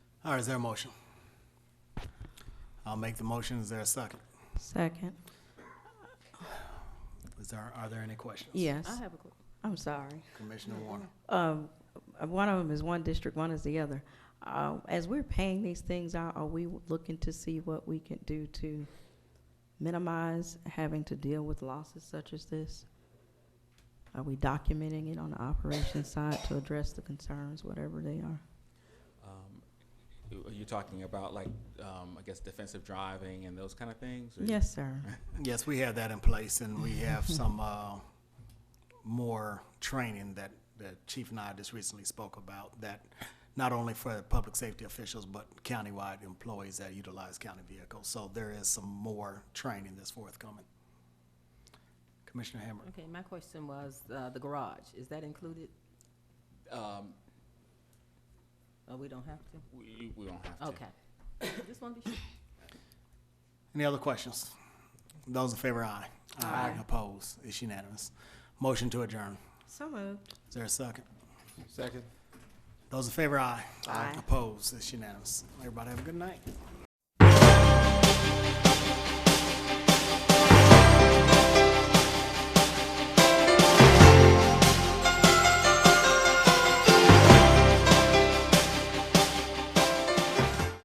All right, is there a motion? I'll make the motion. Is there a second? Second. Is there, are there any questions? Yes, I have a oh, question. I'm sorry. Commissioner Warner. Um, uh, One of them is one district, one is the other. Uh, As we're paying these things out, are we looking to see what we can do to minimize having to deal with losses such as this? Are we documenting it on the operations side to address the concerns, whatever they are? Um, Are you talking about like, um, I guess defensive driving and those kind of things? or- Yes, sir. Yes, we have that in place and we have some, uh, more training that the chief and I just recently spoke about that not only for public safety officials, but countywide employees that utilize county vehicles. So there is some more training that's forthcoming. Commissioner Hammer. Okay, my question was, uh, the garage, is that included? Um, Oh, we don't have to? we, we don't have to. Okay. Just want to be sure. Any other questions? Those in favor, aye. Aye. Opposed, it's unanimous. Motion to adjourn. So moved. Is there a second? Second. Those in favor, aye. Aye. Opposed, it's unanimous. Everybody have a good night.